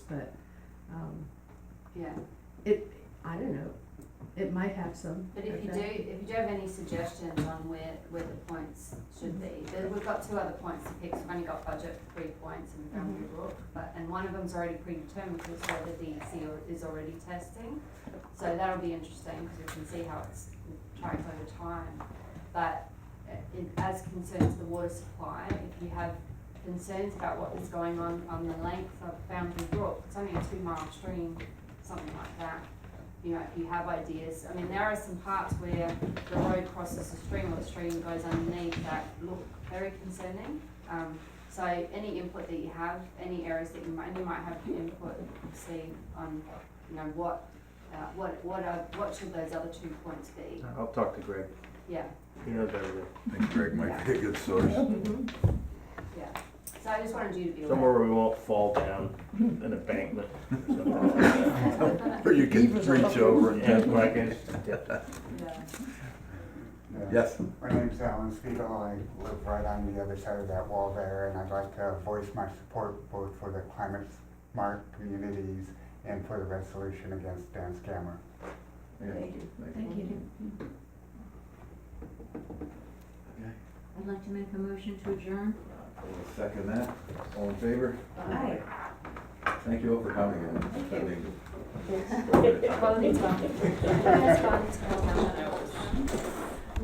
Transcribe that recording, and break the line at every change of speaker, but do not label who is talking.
but, um,
Yeah,
it, I don't know, it might have some.
but if you do,
effect.
if you do have any suggestions on where, where the points should be, there- we've got two other points to pick, so we've only got budget for three points and boundary book, but, and one of them's already predetermined, which is whether the EC al- is already testing. So that'll be interesting, because we can see how it's tracked over time, but uh, in, as concerns the water supply, if you have concerns about what is going on on the length of Boundary Brook, it's only a two mile stream, something like that. You know, if you have ideas, I mean, there are some parts where the road crosses the stream or the stream goes underneath that look very concerning. Um, so any input that you have, any areas that you might, you might have input, see on, you know, what, uh, what, what are, what should those other two points be?
I'll talk to Greg.
Yeah.
He knows everything.
I think Greg might be a good source.
Yeah, so I just wanted you to be aware.
Somewhere where we won't fall down an embankment. something like that.
Or you can reach over and
And
tap
like
my.
it's,
Yeah.
Yes,
My name's Alan Spiegel. I live right on the other side of that wall there, and I'd like to voice my support both for the climate smart communities and for the resolution against Dan Scammer.
Yeah.
Thank you. I'd like to make a motion to adjourn.
I'll Uh, second that. All in favor?
Aye.
Thank you all for coming and
Thank you.
spending.
Well, it's on.
That's fine, it's fine.